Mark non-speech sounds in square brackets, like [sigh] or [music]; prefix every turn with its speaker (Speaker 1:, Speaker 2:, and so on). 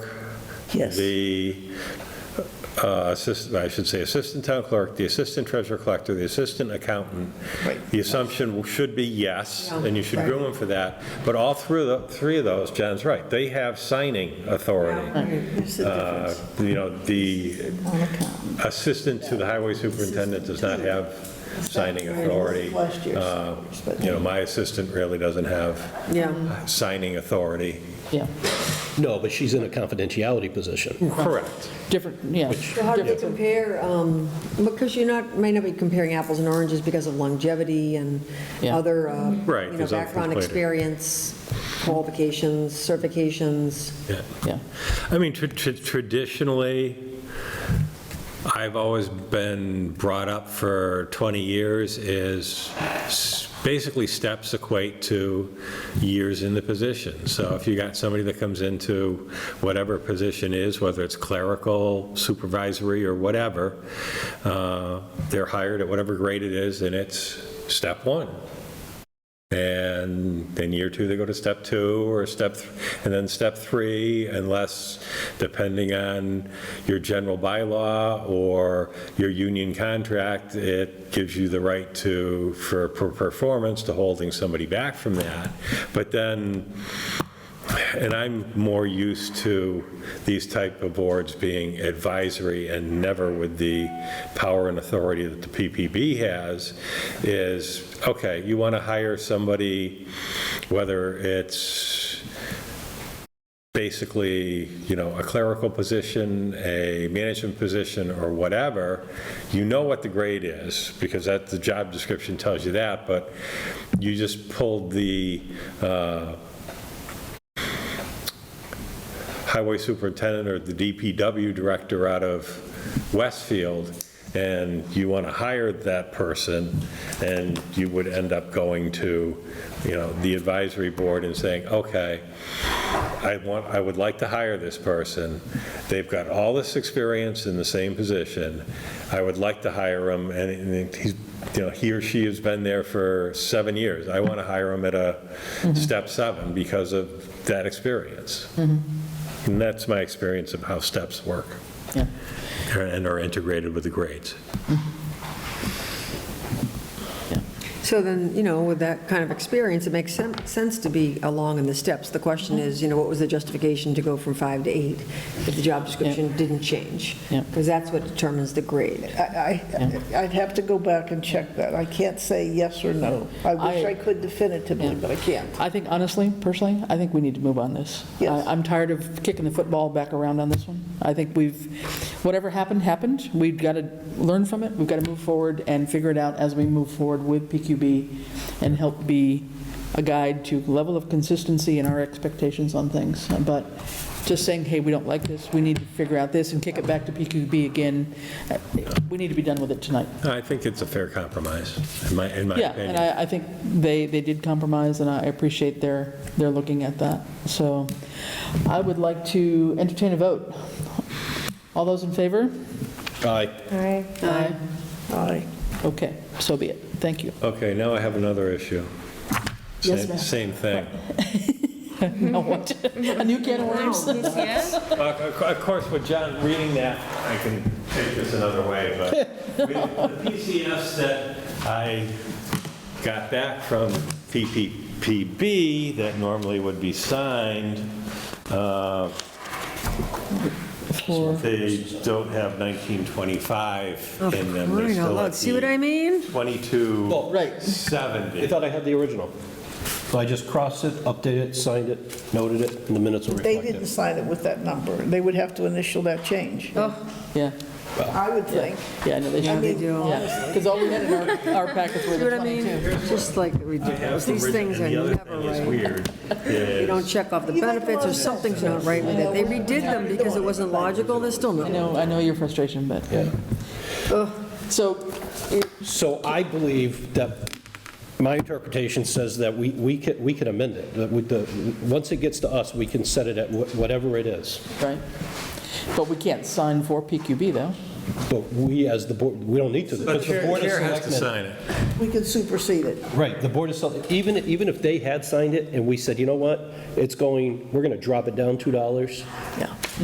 Speaker 1: Yes.
Speaker 2: the uh, assistant, I should say assistant town clerk, the assistant treasurer collector, the assistant accountant.
Speaker 1: Right.
Speaker 2: The assumption should be yes, and you should
Speaker 1: Yeah.
Speaker 2: groom them for that. But all through the, three of those, John's right, they have signing authority.
Speaker 1: There's a
Speaker 2: Uh,
Speaker 1: difference
Speaker 2: You know, the
Speaker 1: on account.
Speaker 2: assistant to the highway superintendent does not have signing authority.
Speaker 1: Last year's,
Speaker 2: Uh,
Speaker 1: but-
Speaker 2: You know, my assistant really doesn't have
Speaker 3: Yeah.
Speaker 2: signing authority.
Speaker 4: Yeah,
Speaker 5: No, but she's in a confidentiality position.
Speaker 2: Correct.
Speaker 4: different, yeah.
Speaker 3: So how do you compare, um, because you're not, may not be comparing apples and oranges because of longevity and
Speaker 4: Yeah.
Speaker 3: other, uh,
Speaker 2: Right,
Speaker 3: you know,
Speaker 2: there's other
Speaker 3: background
Speaker 2: things later.
Speaker 3: experience, qualifications, certifications.
Speaker 2: Yeah.
Speaker 4: Yeah,
Speaker 2: I mean, tr- tr- traditionally, I've always been brought up for 20 years is s- basically steps equate to years in the position. So if you got somebody that comes into whatever position is, whether it's clerical, supervisory, or whatever, uh, they're hired at whatever grade it is, and it's step one. And then year two, they go to step two or step, th- and then step three, unless, depending on your general bylaw or your union contract, it gives you the right to, for per- performance, to holding somebody back from that. But then, and I'm more used to these type of boards being advisory and never with the power and authority that the PPB has, is, okay, you want to hire somebody, whether it's basically, you know, a clerical position, a management position, or whatever, you know what the grade is, because that, the job description tells you that, but you just pulled the, uh, highway superintendent or the DPW director out of Westfield, and you want to hire that person, and you would end up going to, you know, the advisory board and saying, okay, I want, I would like to hire this person. They've got all this experience in the same position. I would like to hire him, and and he's, you know, he or she has been there for seven years. I want to hire him at a step seven because of that experience. And that's my experience of how steps work
Speaker 4: yeah.
Speaker 2: and are integrated with the grades.
Speaker 3: So then, you know, with that kind of experience, it makes sen- sense to be along in the steps. The question is, you know, what was the justification to go from five to eight if the job description didn't change?
Speaker 4: Yeah.
Speaker 3: Because that's what determines the grade.
Speaker 1: I, I- I'd have to go back and check that. I can't say yes or no. I wish
Speaker 4: I-
Speaker 1: I could definitively, but I can't.
Speaker 4: I think honestly, personally, I think we need to move on this.
Speaker 1: Yes.
Speaker 4: I- I'm tired of kicking the football back around on this one. I think we've, whatever happened, happened. We've got to learn from it, we've got to move forward and figure it out as we move forward with PQB and help be a guide to level of consistency in our expectations on things. But just saying, hey, we don't like this, we need to figure out this and kick it back to PQB again, uh, we need to be done with it tonight.
Speaker 2: I think it's a fair compromise, in my, in my
Speaker 4: Yeah, and
Speaker 2: opinion.
Speaker 4: I, I think they, they did compromise, and I appreciate their, their looking at that. So I would like to entertain a vote. All those in favor?
Speaker 5: Aye.
Speaker 4: Aye.
Speaker 1: Aye.
Speaker 4: Okay, so be it. Thank you.
Speaker 2: Okay, now I have another issue.
Speaker 4: Yes,
Speaker 2: Same-
Speaker 4: ma'am.
Speaker 2: Same thing.
Speaker 4: Now what? A new can of worms?
Speaker 2: Uh, Of of course, with John reading that, I can take this another way,
Speaker 4: [laughs]
Speaker 2: but with the PCFs that I got back from PPPB that normally would be signed, uh,
Speaker 4: For-
Speaker 2: they don't have 1925 in them. They're still at
Speaker 3: Oh, See what I mean?
Speaker 2: the 2270.
Speaker 5: Well, right. I thought I had the original. So I just crossed it, updated it, signed it, noted it, and the minutes will
Speaker 1: They
Speaker 5: reflect
Speaker 1: didn't
Speaker 5: it.
Speaker 1: sign it with that number. They would have to initial that change,
Speaker 4: Yeah,
Speaker 1: I would think.
Speaker 4: yeah, I know they should.
Speaker 3: they do.
Speaker 4: Because all we had in our, our packets were
Speaker 3: See what
Speaker 4: the
Speaker 3: I
Speaker 4: 22.
Speaker 3: mean? Just like ridiculous. These things are
Speaker 2: And the other
Speaker 3: never
Speaker 2: thing is
Speaker 3: right.
Speaker 2: weird
Speaker 3: They
Speaker 2: is-
Speaker 3: don't check off the benefits or something's not right with it. They redid them because it wasn't logical, they're still
Speaker 4: I
Speaker 3: not.
Speaker 4: know, I know your frustration, but. So,
Speaker 5: So I believe that, my interpretation says that we we can we can amend it. That with the, once it gets to us, we can set it at wh- whatever it is.
Speaker 4: right, but we can't sign for PQB, though.
Speaker 5: But we, as the board, we don't need to.
Speaker 2: But
Speaker 5: It's
Speaker 2: chair
Speaker 5: Board of
Speaker 2: chair has to
Speaker 5: Selectmen.
Speaker 2: sign it.
Speaker 1: We can supersede it.
Speaker 5: Right, the Board of Selectmen, even, even if they had signed it and we said, you know what, it's going, we're going to drop it down $2,
Speaker 4: Yeah.